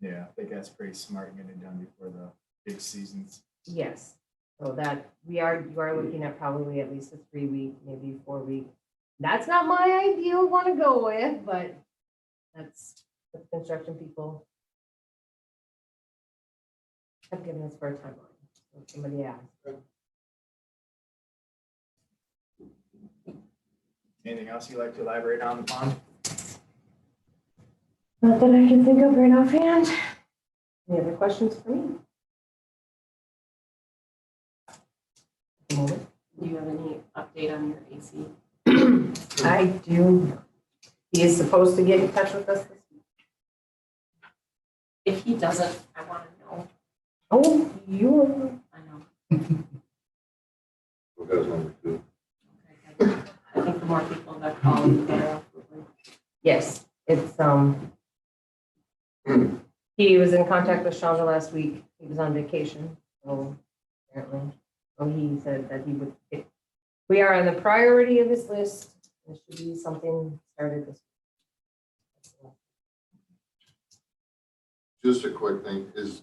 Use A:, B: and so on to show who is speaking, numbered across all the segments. A: Yeah, I think that's pretty smart and get it done before the big seasons.
B: Yes, so that, we are, you are looking at probably at least a three week, maybe four week. That's not my ideal one to go with, but that's the construction people. Have given us for a timeline, so somebody asked.
A: Anything else you'd like to elaborate on the pond?
B: Not that I can think of right offhand. Any other questions for me? Moment.
C: Do you have any update on your AC?
B: I do, he is supposed to get in touch with us this
C: If he doesn't, I want to know.
B: Oh, you,
C: I know.
D: Who does number two?
C: Okay, I think the more people that call, the better. off we'll be.
B: yes, it's, um, he was in contact with Shonda last week. He was on vacation, so apparently, so he said that he would, if, we are on the priority of his list. There should be something started this.
D: Just a quick thing is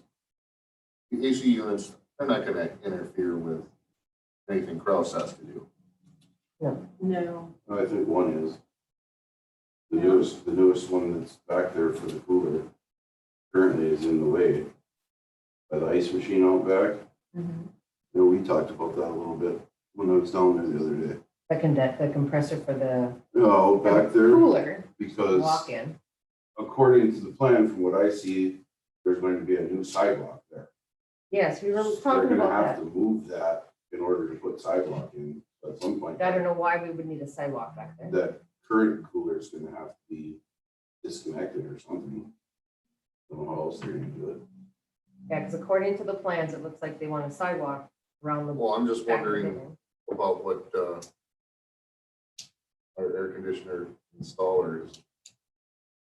D: the AC units, they're not gonna interfere with anything Kraus has to do.
C: No,
E: I think one is. The newest, the newest one that's back there for the cooler currently is in the way. By the ice machine out back,
C: Mhm.
E: you know, we talked about that a little bit when I was down there the other day.
B: The condet, the compressor for the
E: You know, back there
B: cooler
E: because
B: walk-in.
E: according to the plan, from what I see, there's going to be a new sidewalk there.
B: Yes, we were
E: They're
B: talking
E: gonna
B: about
E: have to move that in order to put sidewalk in at some point.
B: that. I don't know why we would need a sidewalk back there.
E: That current cooler is gonna have to be disconnected or something. I don't know how else they're gonna do it.
B: Yeah, because according to the plans, it looks like they want a sidewalk around the.
D: Well, I'm just
B: back of the
D: wondering
B: building.
D: about what, uh, our air conditioner installers.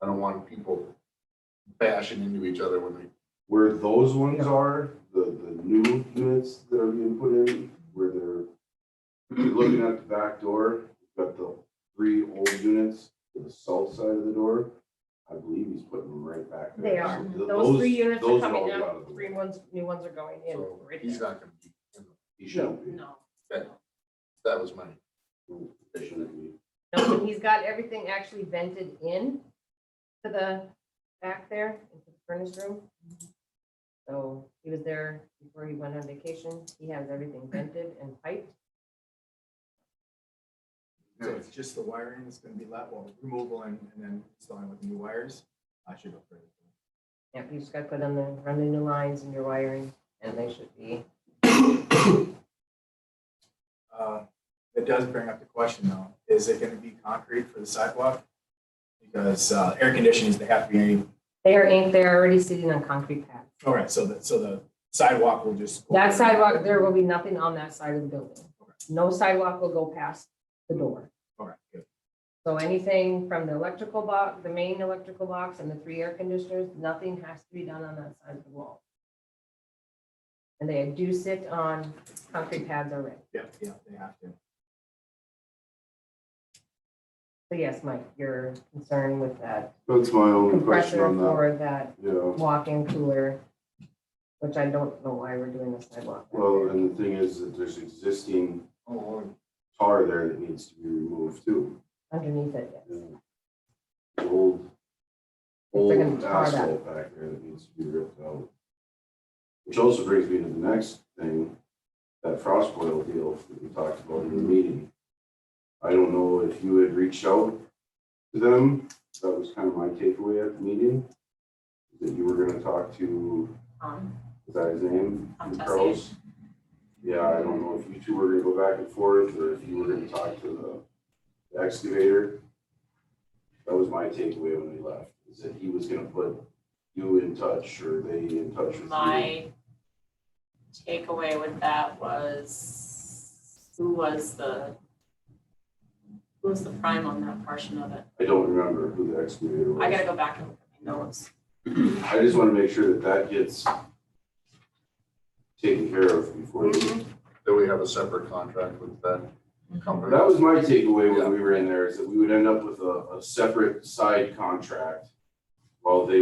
D: I don't want people bashing into each other when they,
E: Where those ones are, the, the new units that are being put in, where they're if you're looking at the back door, you've got the three old units to the south side of the door. I believe he's putting them right back there.
B: They are.
E: So th-
B: Those three units are
E: those
B: coming
E: all
B: down,
E: out of the
B: three
E: way.
B: ones, new ones are going in.
D: so
B: right
D: he's
B: there.
D: not gonna be. in them.
E: He shouldn't be.
C: no.
D: That was my,
E: They shouldn't be.
B: No, and he's got everything actually vented in to the back there, into the furnace room. So he was there before he went on vacation. He has everything vented and piped.
A: So it's just the wiring that's gonna be left, well, removal and, and then installing with new wires. I should go further.
B: Yep, you just gotta put on the, run the new lines and your wiring, and they should be,
A: Uh, It does bring up the question though, is it gonna be concrete for the sidewalk? Because, uh, air conditioning, they have to be any,
B: they are ain't, they're already sitting on concrete pads.
A: all right, so the, so the sidewalk will just.
B: That sidewalk, there will be nothing on that side of the building. No sidewalk will go past the door.
A: All right, good.
B: So anything from the electrical box, the main electrical box and the three air conditioners, nothing has to be done on that side of the wall. And they do sit on concrete pads already.
A: Yep, yeah, they have to.
B: So yes, Mike, your concern with that
E: That's my only question
B: compressor
E: on that.
B: for that
E: Yeah,
B: walk-in cooler, which I don't know why we're doing the sidewalk. back
E: well,
B: there.
E: and the thing is that there's existing
D: oh,
E: tar there that needs to be removed too.
B: Underneath it, yes.
E: Old,
B: They're gonna
E: old
B: tar that.
E: asphalt back there that needs to be ripped out. Which also brings me to the next thing, that frost boil deal that we talked about in the
B: Mm-hmm.
E: meeting. I don't know if you had reached out to them, that was kind of my takeaway at the meeting. That you were gonna talk to,
C: Um,
E: is that his name?
C: Um, Tessie.
E: Kraus? Yeah, I don't know if you two were gonna go back and forth, or if you were gonna talk to the excavator. That was my takeaway when we left, is that he was gonna put you in touch, or they in touch with you.
C: my takeaway with that was, who was the, who was the prime on that portion of it?
E: I don't remember who the excavator was.
C: I gotta go back and look at my notes.
E: I just wanna make sure that that gets taken care of before. we-
C: Mm-hmm.
D: Then we have a separate contract with that company.
E: That was my takeaway when we were in there, is that we would end up with a, a separate side contract while they